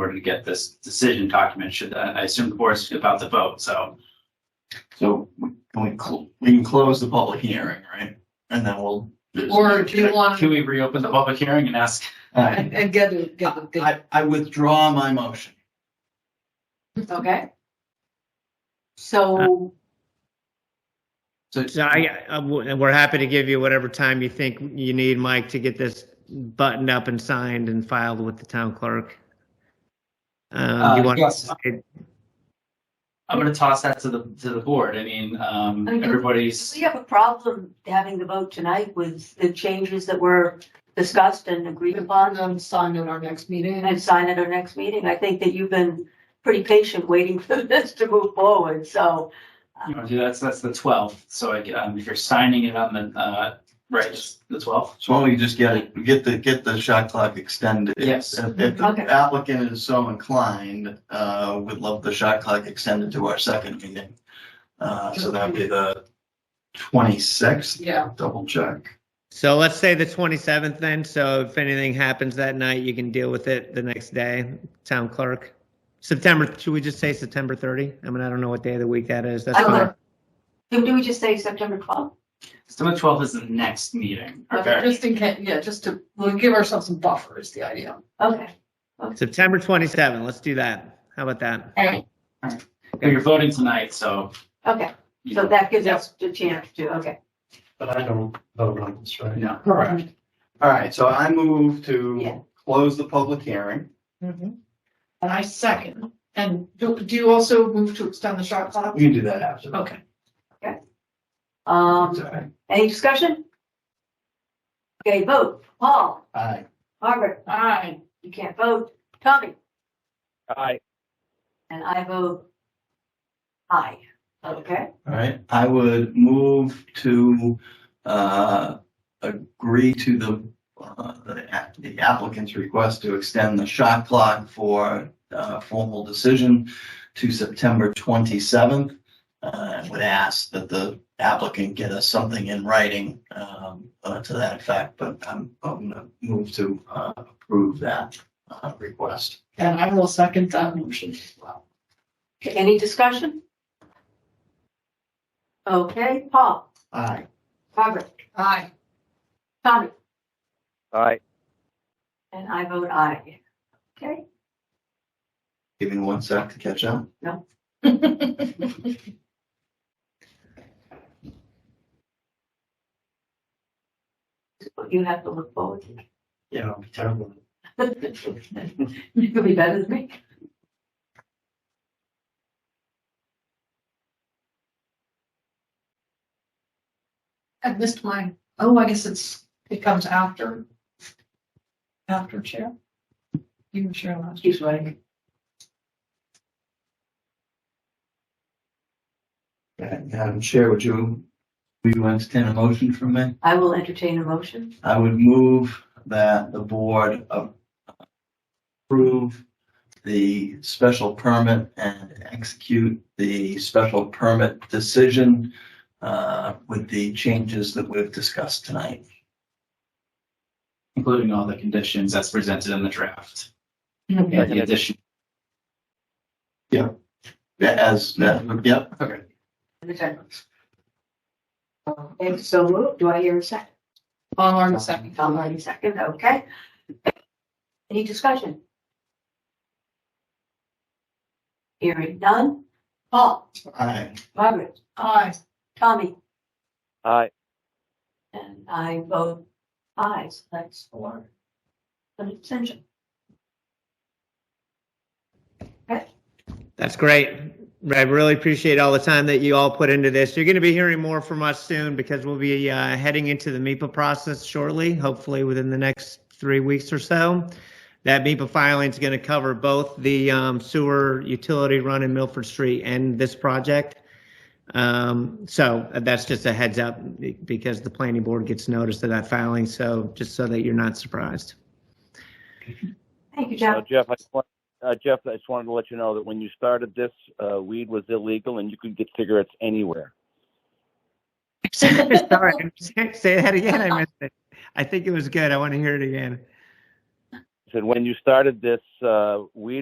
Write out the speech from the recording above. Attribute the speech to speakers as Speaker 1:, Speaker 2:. Speaker 1: order to get this decision document, should, uh, I I assume the board's about to vote, so.
Speaker 2: So we- can we, cl- we can close the public hearing, right? And then we'll.
Speaker 3: Or do you want,
Speaker 1: Can we reopen the public hearing and ask?
Speaker 2: I,
Speaker 3: and and get the, get the date,
Speaker 2: I- I withdraw my motion.
Speaker 3: okay? So,
Speaker 1: So,
Speaker 4: So I, I- w- we're happy to give you whatever time you think you need, Mike, to get this buttoned up and signed and filed with the town clerk. Um,
Speaker 1: Uh,
Speaker 4: you want,
Speaker 1: yes.
Speaker 4: it-
Speaker 1: I'm gonna toss that to the, to the board, I mean, um,
Speaker 5: I mean, do-
Speaker 1: everybody's.
Speaker 5: We have a problem having the vote tonight with the changes that were discussed and
Speaker 3: we
Speaker 5: agreed
Speaker 3: can
Speaker 5: upon
Speaker 3: them sign at our next meeting.
Speaker 5: and sign at our next meeting. I think that you've been pretty patient waiting for this to move forward, so.
Speaker 1: You know, that's, that's the twelfth, so I, um, if you're signing it on the, uh, right, the twelfth.
Speaker 2: So why don't we just get it, get the, get the shot clock extended?
Speaker 1: Yes.
Speaker 2: If if the
Speaker 5: Okay.
Speaker 2: applicant is so inclined, uh, would love the shot clock extended to our second meeting. Uh, so that'd be the twenty-sixth,
Speaker 3: Yeah,
Speaker 2: double check.
Speaker 4: so let's say the 27th then, so if anything happens that night, you can deal with it the next day, town clerk. September, should we just say September 30? I mean, I don't know what day of the week that is. That's
Speaker 5: I don't
Speaker 4: fine.
Speaker 5: know. Do do we just say September twelfth?
Speaker 1: September twelfth is the next meeting,
Speaker 3: okay,
Speaker 1: okay?
Speaker 3: just in case, yeah, just to, we'll give ourselves some buffer is the idea.
Speaker 5: Okay.
Speaker 4: September 27, let's do that. How about that?
Speaker 5: Okay.
Speaker 1: And You're voting tonight, so.
Speaker 5: Okay,
Speaker 1: you
Speaker 5: so
Speaker 1: know,
Speaker 5: that gives us the chance to, okay.
Speaker 6: But I don't vote on this, right?
Speaker 1: No,
Speaker 2: Correct. All right, so I move
Speaker 5: Yeah.
Speaker 2: to close the public hearing.
Speaker 3: And I second, and do, do you also move to extend the shot clock?
Speaker 2: You can do that after.
Speaker 3: Okay,
Speaker 2: It's
Speaker 5: Um,
Speaker 2: all right.
Speaker 5: any discussion? Okay, vote. Paul,
Speaker 2: Aye.
Speaker 5: Margaret,
Speaker 3: aye.
Speaker 5: you can't vote. Tommy,
Speaker 7: Aye.
Speaker 5: and I vote aye. Okay?
Speaker 2: All right, I would move to, uh, agree to the, uh, the app- the applicant's request to extend the shot clock for, uh, formal decision to September twenty-seventh. Uh, and would ask that the applicant get us something in writing, um, uh, to that effect, but I'm, I'm gonna move to, uh, approve that, uh, request.
Speaker 3: And I will second that motion as well.
Speaker 5: Okay, Any discussion? Okay, Paul,
Speaker 2: Aye.
Speaker 5: Robert,
Speaker 3: Aye.
Speaker 5: Tommy,
Speaker 7: Aye.
Speaker 5: and I vote aye. Okay,
Speaker 2: Give me one sec to catch up.
Speaker 5: you have to look forward to.
Speaker 6: Yeah, it'll be terrible.
Speaker 5: You could be better than me.
Speaker 3: I missed mine. Oh, I guess it's, it comes after. After chair. You can share last.
Speaker 5: She's running.
Speaker 2: Madam Chair, would you, would you entertain a motion from me?
Speaker 5: I will entertain a motion.
Speaker 2: I would move that the board of- approve the special permit and execute the special permit decision uh, with the changes that we've discussed tonight.
Speaker 1: including all the conditions that's presented in the draft.
Speaker 3: Okay.
Speaker 1: And the addition,
Speaker 2: As, yep,
Speaker 5: And so moved. Do I hear a second?
Speaker 3: Paul Martin second.
Speaker 5: Tom Hardy second, okay. Any discussion? Hearing none. Paul,
Speaker 2: aye.
Speaker 5: Margaret,
Speaker 3: Aye.
Speaker 5: Tommy,
Speaker 7: Aye.
Speaker 5: And I vote aye, so that's four. An abstention.
Speaker 4: That's great. I really appreciate all the time that you all put into this. You're going to be hearing more from us soon because we'll be uh, heading into the MEPA process shortly, hopefully within the next three weeks or so. That MEPA filing is going to cover both the um, sewer utility run in Milford Street and this project. Um, so that's just a heads up because the planning board gets notice of that filing. So just so that you're not surprised.
Speaker 5: Thank you,
Speaker 7: Uh,
Speaker 5: Jeff.
Speaker 7: Jeff, I just want, uh, Jeff, I just wanted to let you know that when you started this, uh, weed was illegal and you could get cigarettes anywhere.
Speaker 4: Sorry, say that again. I missed it. I think it was good. I want to hear it again.
Speaker 7: I said when you started this, uh, weed